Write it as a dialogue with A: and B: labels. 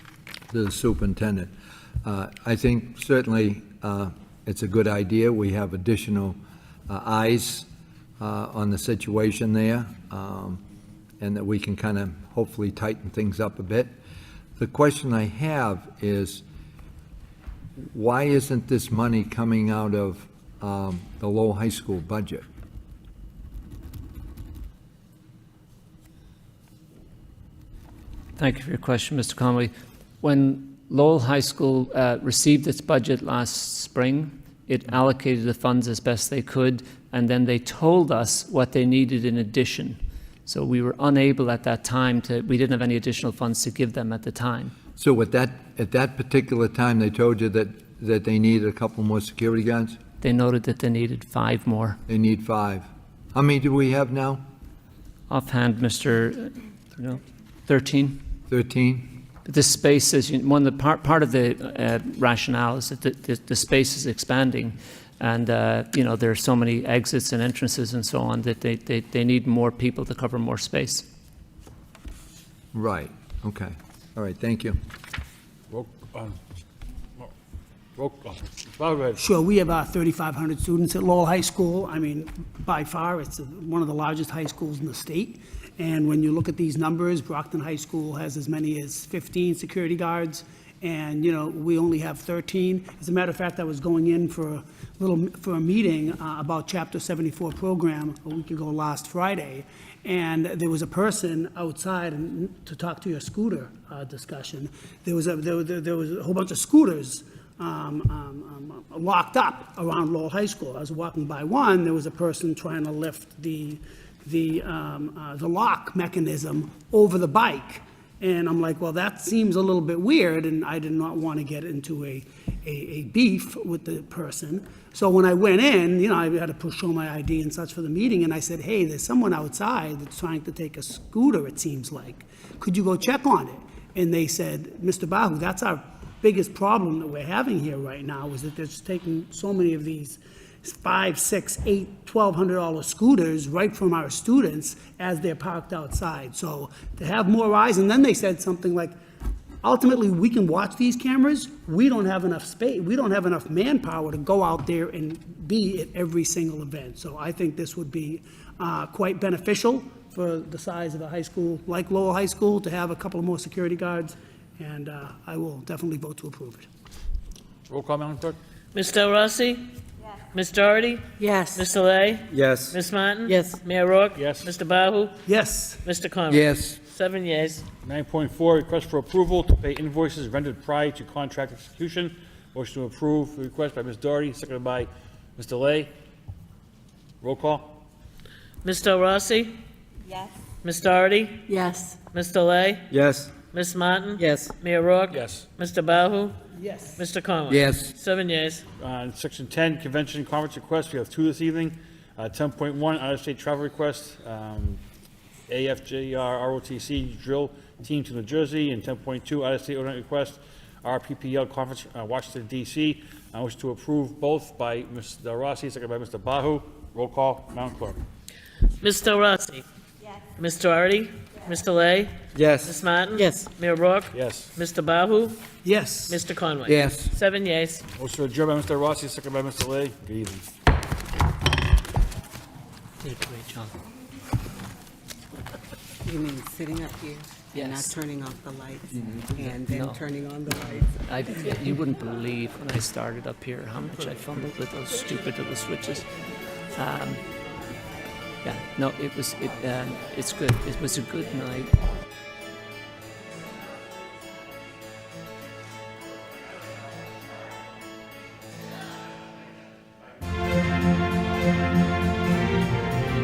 A: the superintendent. Uh, I think certainly uh, it's a good idea. We have additional uh, eyes uh, on the situation there, um, and that we can kind of hopefully tighten things up a bit. The question I have is, why isn't this money coming out of um, the Lowell High School budget?
B: Thank you for your question, Mr. Conway. When Lowell High School uh, received its budget last spring, it allocated the funds as best they could, and then they told us what they needed in addition. So we were unable at that time to, we didn't have any additional funds to give them at the time.
A: So at that, at that particular time, they told you that, that they needed a couple more security guards?
B: They noted that they needed five more.
A: They need five. How many do we have now?
B: Offhand, uh, Mr. No, 13?
A: Thirteen?
B: The space is, one of the, part, part of the uh, rationale is that the, the, the space is expanding, and, uh, you know, there are so many exits and entrances and so on, that they, they, they need more people to cover more space.
A: Right, okay. All right, thank you.
C: Roll, um, roll call. Mr. Fogarty.
D: Sure, we have uh, 3,500 students at Lowell High School. I mean, by far, it's one of the largest high schools in the state. And when you look at these numbers, Brockton High School has as many as 15 security guards, and, you know, we only have 13. As a matter of fact, I was going in for a little, for a meeting uh, about Chapter 74 program a week ago last Friday, and there was a person outside and- to talk to your scooter uh, discussion. There was a, there was- there was a whole bunch of scooters um, um, um, locked up around Lowell High School. I was walking by one, there was a person trying to lift the, the, um, uh, the lock mechanism over the bike. And I'm like, well, that seems a little bit weird, and I did not want to get into a, a, a beef with the person. So when I went in, you know, I had to push- show my ID and such for the meeting, and I said, hey, there's someone outside that's trying to take a scooter, it seems like. Could you go check on it? And they said, Mr. Bahu, that's our biggest problem that we're having here right now is that they're just taking so many of these five, six, eight, twelve hundred dollar scooters right from our students as they're parked outside. So to have more eyes, and then they said something like, ultimately, we can watch these cameras, we don't have enough space, we don't have enough manpower to go out there and be at every single event. So I think this would be uh, quite beneficial for the size of a high school, like Lowell High School, to have a couple of more security guards and uh, I will definitely vote to approve it.
C: Roll call, Madam Clerk.
E: Ms. Del Rossi? Yes. Ms. Doherty?
F: Yes.
E: Ms. Delay?
G: Yes.
E: Ms. Martin?
F: Yes.
E: Mayor Rourke?
C: Yes.
E: Mr. Bahu?
D: Yes,
E: Mr. Conway?
A: Yes,
E: Seven yeas.
C: 9.4, request for approval to pay invoices rendered prior to contract execution. Motion to approve, the request by Ms. Doherty, seconded by Ms. Delay. Roll call.
E: Ms. Del Rossi? Yes. Ms. Doherty?
F: Yes.
E: Ms. Delay?
G: Yes.
E: Ms. Martin?
F: Yes.
E: Mayor Rourke?
C: Yes.
E: Mr. Bahu?
D: yes.
E: Mr. Conway?
A: Yes.
E: Seven yeas.
C: On Uh, section 10, convention and conference requests, we have two this evening. Uh, 10.1, out-of-state travel request, um, AFJR ROTC drill team to New Jersey, and 10.2, out-of-state overnight request, RPPL conference, uh, Washington DC. I wish to approve both by Ms. Del Rossi, second by Mr. Bahu. Roll call, Madam Clerk.
E: Ms. Del Rossi? Yes. Ms. Doherty? Ms. Delay? Ms.
G: Yes.
E: Martin?
F: Yes.
E: Mayor Rourke?
C: Yes.
E: Mr. Bahu?
D: Yes.
E: Mr. Conway?
A: yes.
E: Seven yeas.
C: Motion adjourned by Mr. Rossi, second by Mr. Lay. Good evening.
B: Did a great job.
F: You mean sitting up here and not
B: Yes. Mm-hmm.
F: turning off the lights and then
B: No.
F: turning on the lights?
B: I, you wouldn't believe when I started up here how much I fumbled with those stupid little switches. Um, yeah, no, it was, it, um, it's good. It was a good night.